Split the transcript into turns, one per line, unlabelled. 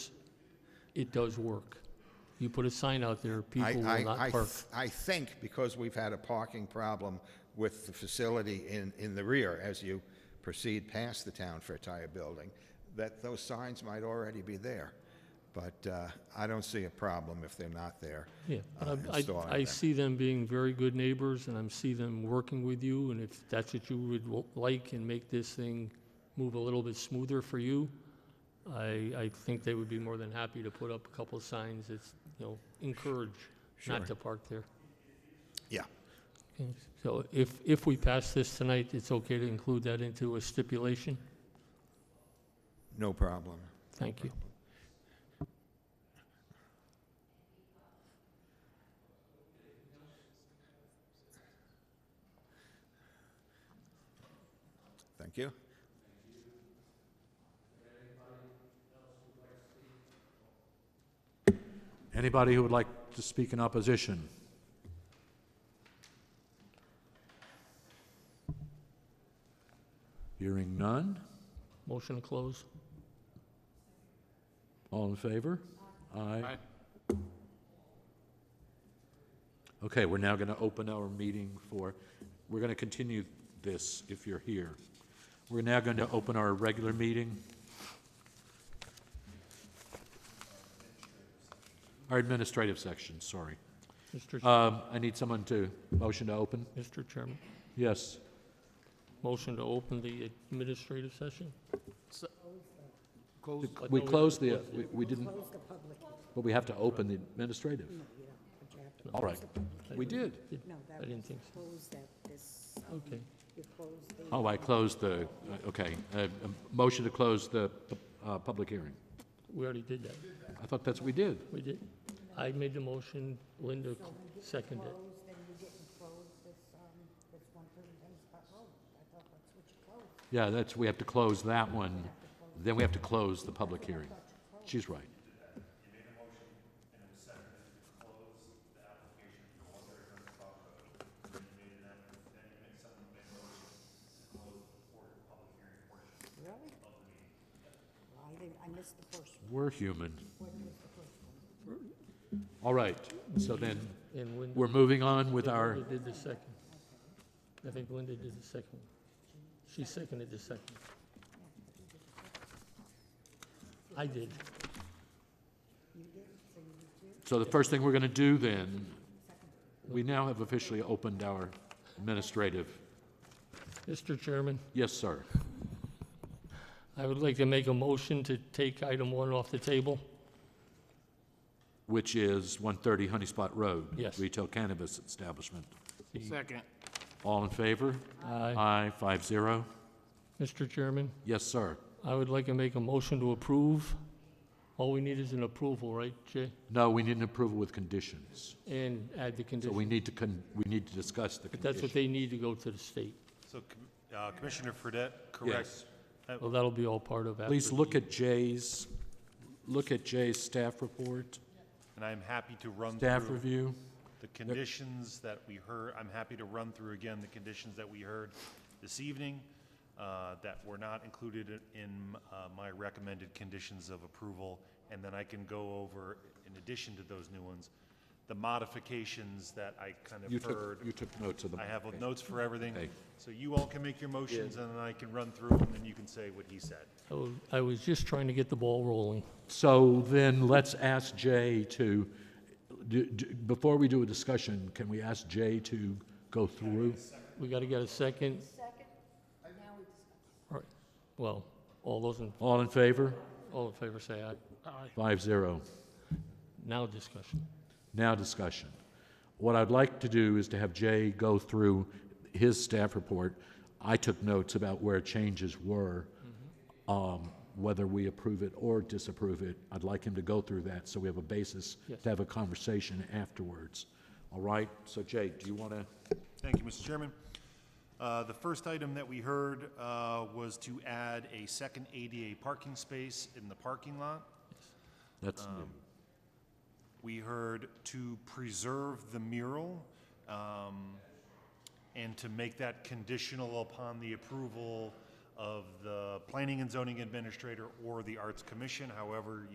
it does work. You put a sign out there,
I-
people
I-
will
I
not park.
th- I think because we've had a parking problem with the facility in, in the rear, as you proceed past the Town Fair Tire Building, that those signs might already be there. But uh, I don't see a problem if they're not there.
Yeah, but
uh,
I,
installing
I, I
them.
see them being very good neighbors, and I see them working with you, and if that's what you would w- like and make this thing move a little bit smoother for you, I, I think they would be more than happy to put up a couple of signs that, you know, encourage not to park there.
Yeah,
Okay, So if, if we pass this tonight, it's okay to include that into a stipulation?
no problem.
Thank you.
Thank you.
Anybody who would like to speak in opposition? Hearing none.
Motion to close?
All in favor? Aye. Okay, we're now going to open our meeting for, we're going to continue this if you're here. We're now going to open our regular meeting. Our administrative section, sorry.
Mr. Ch-
Um, I need someone to, motion to open?
Mr. Chairman,
Yes.
motion to open the administrative session?
We-
But no,
We
we
closed the, we- we didn't, but we have to open the administrative.
But you have to
All right. We did.
Did-
No, that
I didn't think so.
close that this, um,
Okay.
you close the.
Oh, I closed the, okay. Uh, a Motion to close the pu- uh, public hearing.
We already did that.
I thought that's what we did.
We did. I made the motion, Linda seconded it.
Close, then you didn't close this, um, this one thirty Dennis Scott Road. I thought that's what you closed.
Yeah, that's, we have to close that one. Then we have to close the public hearing. She's right.
Really? Well, I didn't, I missed the first one.
We're human.
What was the first one?
All right. So then,
And Linda
we're moving on with our,
Linda did the second. I think Linda did the second. one. She seconded the second. I did.
so the first thing we're going to do then, we now have officially opened our administrative.
Mr. Chairman,
Yes, sir.
I would like to make a motion to take item one off the table.
Which is 130 Honey Spot Road.
Yes.
Retail cannabis establishment.
Second.
All in favor?
Aye.
Aye, five zero.
Mr. Chairman,
Yes, sir.
I would like to make a motion to approve. All we need is an approval, right, Jay?
No, we need an approval with conditions.
And add the
So we
condition.
need to, con- we need to discuss the
But that's
conditions.
what they need to go to the state.
So Com- uh, Commissioner Fredette, correct?
Well, that'll be all part of after.
Please
the-
look at Jay's, look at Jay's staff report,
And I'm happy to run
staff
through
review.
the conditions that we heard, I'm happy to run through again the conditions that we heard this evening uh, that were not included i- in uh, my recommended conditions of approval. And then I can go over, in addition to those new ones, the modifications that I kind
You
of
took,
heard.
you took notes of them.
I have notes for everything.
Okay.
So you all can make your motions and then I can run through them and you can say what he said.
I was- I was just trying to get the ball rolling.
So then let's ask Jay to, do- do- before we do a discussion, can we ask Jay to go through?
We got to get a second. Second, now we discuss. All right, well, all those in,
All in favor?
all in favor say aye.
Five zero.
Now discussion.
Now discussion. What I'd like to do is to have Jay go through his staff report. I took notes about where changes were, um, whether we approve it or disapprove it. I'd like him to go through that so we have a basis to have a conversation afterwards. All right? So Jay, do you want to?
Thank you, Mr. Chairman. Uh, The first item that we heard uh, was to add a second ADA parking space in the parking lot.
That's new.
We heard to preserve the mural um, and to make that conditional upon the approval of the planning and zoning administrator or the arts commission, however